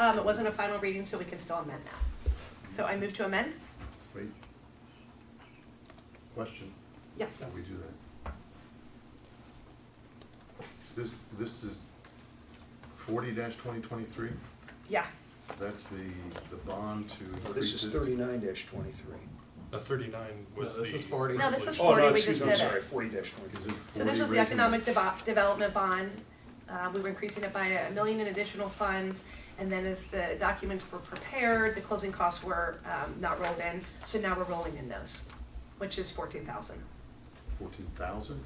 Um, it wasn't a final reading, so we can still amend that. So I move to amend? Wait. Question, Yes. before we do that. Is This, this is forty twenty twenty-three, Yeah, that's the, the bond to increase Oh, This is it. thirty-nine twenty-three. The thirty-nine was the. No, this is 40. No, this was Oh, 40, no, we excuse just me, I'm did it. sorry, forty Is twenty-three. it so this 40 was the raising- economic devo- development bond. Uh, we were increasing it by a million in additional funds. And then as the documents were prepared, the closing costs were, um, not rolled in. So now we're rolling in those, which is fourteen thousand. Mm-hmm. Fourteen thousand?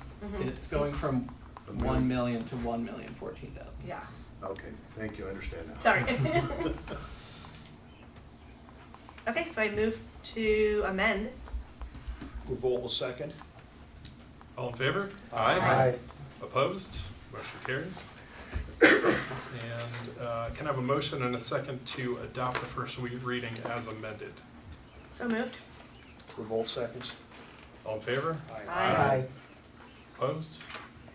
It's going from A million. one million to one million fourteen thousand. Yeah, Okay, thank you, I understand now. sorry. Okay, so I move to amend. Revolt will second. All in favor? Aye. Opposed? Motion carries. And uh, can I have a motion and a second to adopt the first we- reading as amended? So moved? Revolt seconds. All in favor? Aye. Opposed?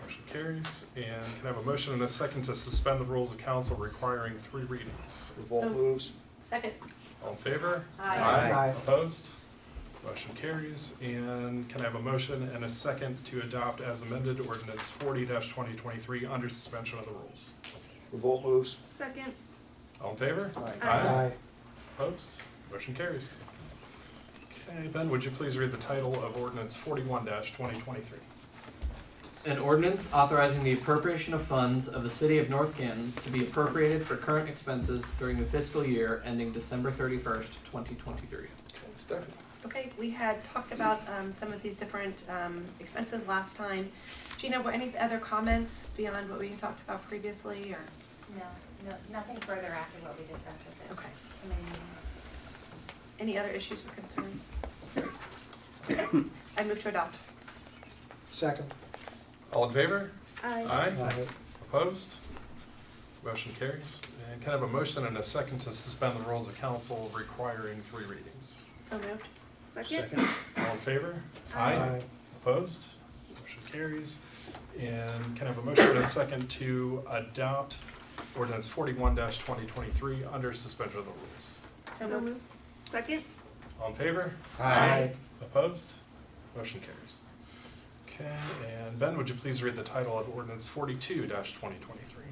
Motion carries. And can I have a motion and a second to suspend the rules of council requiring three readings? Revolt So- moves. Second? All in favor? Aye. Opposed? Motion carries. And can I have a motion and a second to adopt as amended ordinance forty twenty twenty-three under suspension of the rules? Revolt moves. Second. All in favor? Aye. Aye. Opposed? Motion carries. Okay, Ben, would you please read the title of ordinance forty-one twenty twenty-three? An ordinance authorizing the appropriation of funds of the city of North Canton to be appropriated for current expenses during the fiscal year ending December thirty-first, twenty twenty-three. Okay, Stephanie. Okay, we had talked about um, some of these different um, expenses last time. Gina, were any other comments beyond what we had talked about previously, or, No, no, nothing further after what we discussed with the okay. committee meeting. Any other issues or concerns? I move to adopt. Second. All in favor? Aye. Aye. Opposed? Motion carries. And can I have a motion and a second to suspend the rules of council requiring three readings? So moved? Second. All in favor? Aye. Opposed? Motion carries. And can I have a motion and a second to adopt ordinance forty-one twenty twenty-three under suspension of the rules? So moved. Second? All in favor? Aye. Opposed? Motion carries. Okay, and Ben, would you please read the title of ordinance forty-two twenty twenty-three?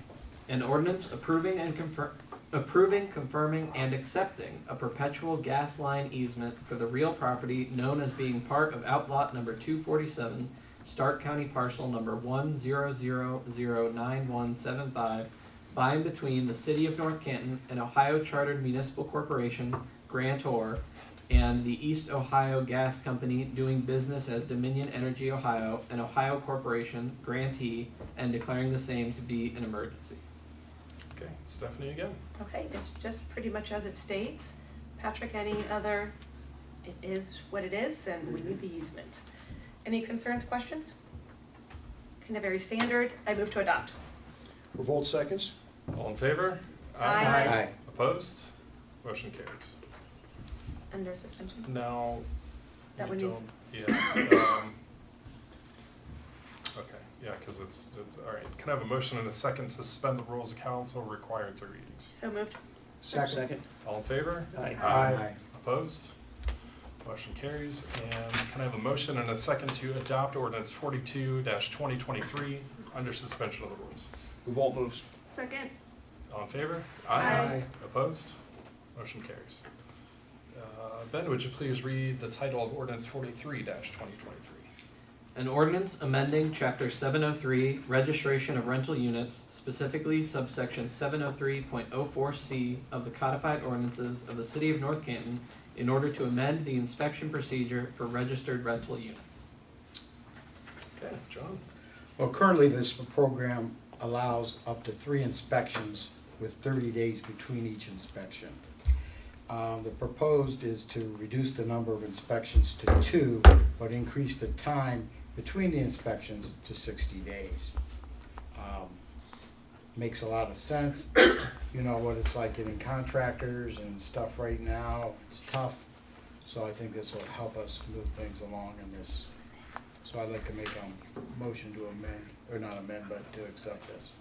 An ordinance approving and confirm, approving, confirming, and accepting a perpetual gas line easement for the real property known as being part of outlot number two forty-seven, Stark County parcel number one zero zero zero nine one seven five, by and between the city of North Canton and Ohio Chartered Municipal Corporation, grantor, and the East Ohio Gas Company doing business as Dominion Energy Ohio, an Ohio corporation, grantee, and declaring the same to be an emergency. Okay, Stephanie again. Okay, it's just pretty much as it states. Patrick, any other, it is what it is, and we need the easement. Any concerns, questions? Kind of very standard, I move to adopt. Revolt seconds. All in favor? Aye. Opposed? Motion carries. Under suspension? Now, That we one needs- don't, yeah, um, okay, yeah, cause it's, it's, all right. Can I have a motion and a second to suspend the rules of council requiring three readings? So moved. Second. Second. All in favor? Aye. Aye. Opposed? Motion carries. And can I have a motion and a second to adopt ordinance forty-two twenty twenty-three under suspension of the rules? Revolt moves. Second. All in favor? Aye. Opposed? Motion carries. Uh, Ben, would you please read the title of ordinance forty-three twenty twenty-three? An ordinance amending chapter seven oh three, registration of rental units, specifically subsection seven oh three point oh four C of the codified ordinances of the city of North Canton in order to amend the inspection procedure for registered rental units. Okay, John? Well, currently, this program allows up to three inspections with thirty days between each inspection. Um, the proposed is to reduce the number of inspections to two, but increase the time between the inspections to sixty days. Um, Makes a lot of sense, you know what it's like getting contractors and stuff right now, it's tough. So I think this will help us move things along in this so I'd like to make a motion to amend, or not amend, but to accept this.